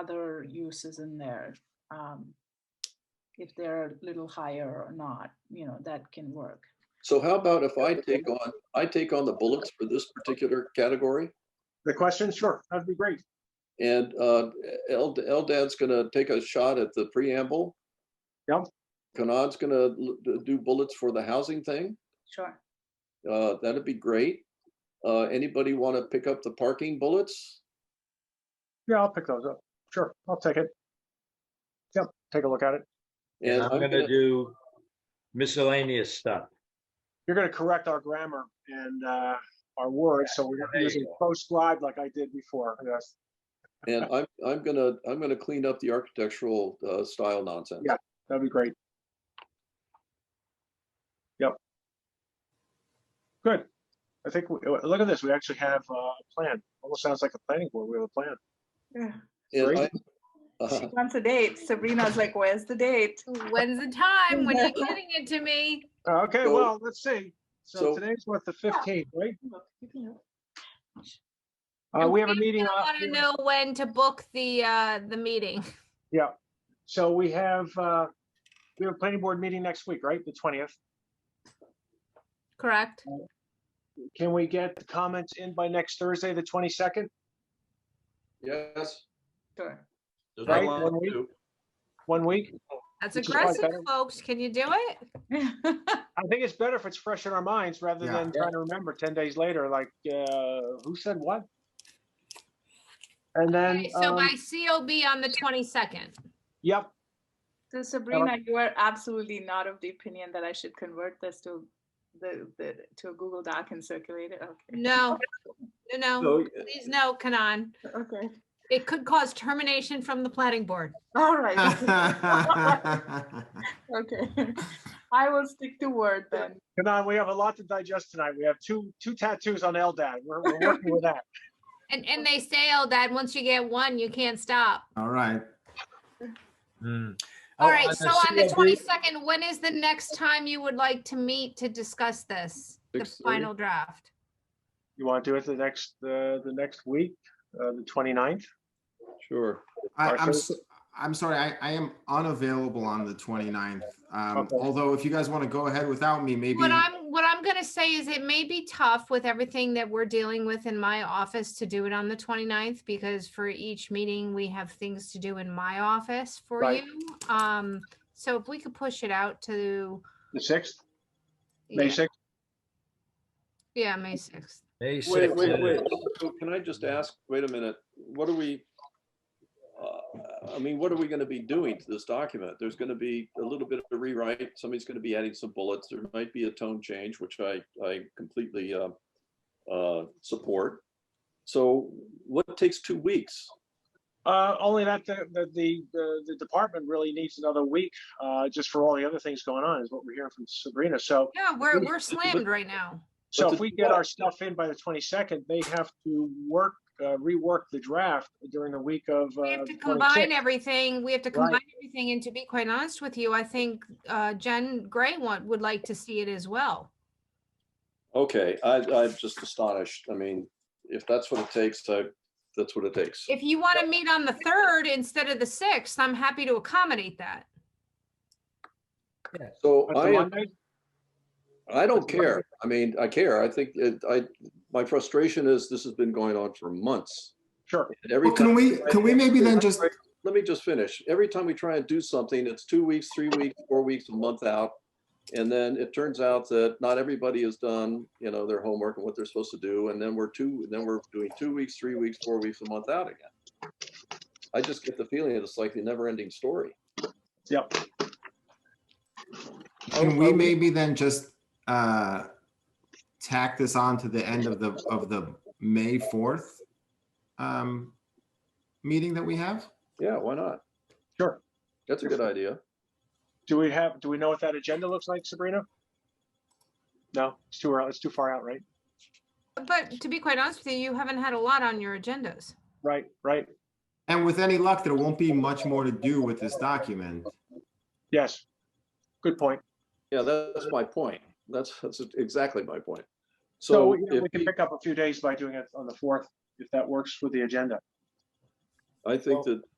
other uses in there. um, If they're a little higher or not, you know, that can work. So how about if I take on, I take on the bullets for this particular category? The question, sure, that'd be great. And uh, El Eldad's gonna take a shot at the preamble. Yep. Kanad's gonna l- d- do bullets for the housing thing. Sure. Uh, That'd be great. Uh, Anybody want to pick up the parking bullets? Yeah, I'll pick those up. Sure, I'll take it. Yep, take a look at it. And I'm gonna do miscellaneous stuff. You're gonna correct our grammar and uh, our words, so we're There not you using go. proscribed like I did before. Yes, And I'm, I'm gonna, I'm gonna clean up the architectural uh, style nonsense. Yeah. that'd be great. Yep. Good. I think, we- uh, look at this, we actually have uh, a plan. Almost sounds like a planning board, we have a plan. And I- Great. uh, She wants a date. Sabrina's like, where's the date? When's the time? When are you getting it to me? Uh, Okay, So- well, let's see. So so- today's what, the fifteenth, right? Uh, And we have a Frank's meeting. gonna off- wanna know when to book the, uh, the meeting. So we have, uh, we have a planning board meeting next week, right? The twentieth. Correct? Uh, Can we get the comments in by next Thursday, the twenty-second? Yes. Sure. Does Right, anyone one want week. to? One week? That's Which is probably aggressive, better. folks. Can you do it? I think it's better if it's fresh in our minds rather Yeah. than trying to remember ten days later, like, uh, who said what? And then, Okay, So um, my COB on the twenty-second. yep, So Sabrina, you are absolutely not of the opinion that I should convert this to the, the, to a Google Doc and circulate it? Okay. No, no, no. So, Please no, Kanan. Okay. It could cause termination from the planning board. All right. Okay. I will stick to Word then. Kanan, we have a lot to digest tonight. We have two, two tattoos on LDAT. We're, we're working with that. And, and they say, oh, Dad, once you get one, you can't stop. All right. Hmm. All Oh, right, so on the CLB twenty-second, when is the next time you would like to meet to discuss this? The 6:30. final draft? You want to do it the next, uh, the next week, uh, the 29th? Sure. I, I'm, Arthur? so- I'm sorry, I, I am unavailable on the 29th. Um, Okay. although if you guys want to go ahead without me, maybe. What I'm, what I'm gonna say is it may be tough with everything that we're dealing with in my office to do it on the 29th because for each meeting, we have things to do in my office for Right. you. Um, so if we could push it out to, The sixth, May yeah, sixth? yeah, May sixth. May Wait, wait, 6th. wait. So Can I just ask, wait a minute, what are we? uh, I mean, what are we going to be doing to this document? There's going to be a little bit of a rewrite. Somebody's going to be adding some bullets. There might be a tone change, which I, I completely uh, uh, support. So what takes two weeks? Uh, only that the, the, the, the- the department really needs another week, uh, just for all the other things going on is what we're hearing from Sabrina. So, Yeah, we're, Look- we're slammed right now. so But if the- we get our stuff in by the twenty-second, they have to work, uh, rework the draft during the week of, We uh, have to combine 26th. everything, we have to Right. combine everything, and to be quite honest with you, I think uh, Jen Gray want, would like to see it as well. Okay, I, I'm just astonished. I mean, if that's what it takes, I, that's what it takes. If you want to meet on the third instead of the sixth, I'm happy to accommodate that. So But the I, Monday- I don't That's fine. care. I mean, I care. I think it, I, my frustration is this has been going on for months. Sure, And every Well, Can time, we, can we maybe then just, let me just finish. Every time we try and do something, it's two weeks, three weeks, four weeks, a month out. And then it turns out that not everybody has done, you know, their homework and what they're supposed to do. And then we're two, then we're doing two weeks, three weeks, four weeks, a month out again. I just get the feeling that it's like the never ending story. yep. can we maybe then just, uh, tack this on to the end of the, of the May 4th, um, meeting that we have? Yeah, why not? Sure. That's a good idea. Do we have, do we know what that agenda looks like, Sabrina? No, it's too early, it's too far out, right? But to be quite honest with you, you haven't had a lot on your agendas. Right, right, And with any luck, there won't be much more to do with this document. yes. Good point. Yeah, that's my point. That's, that's exactly my point. So So we we if can the- pick up a few days by doing it on the fourth, if that works with the agenda. I think Well- that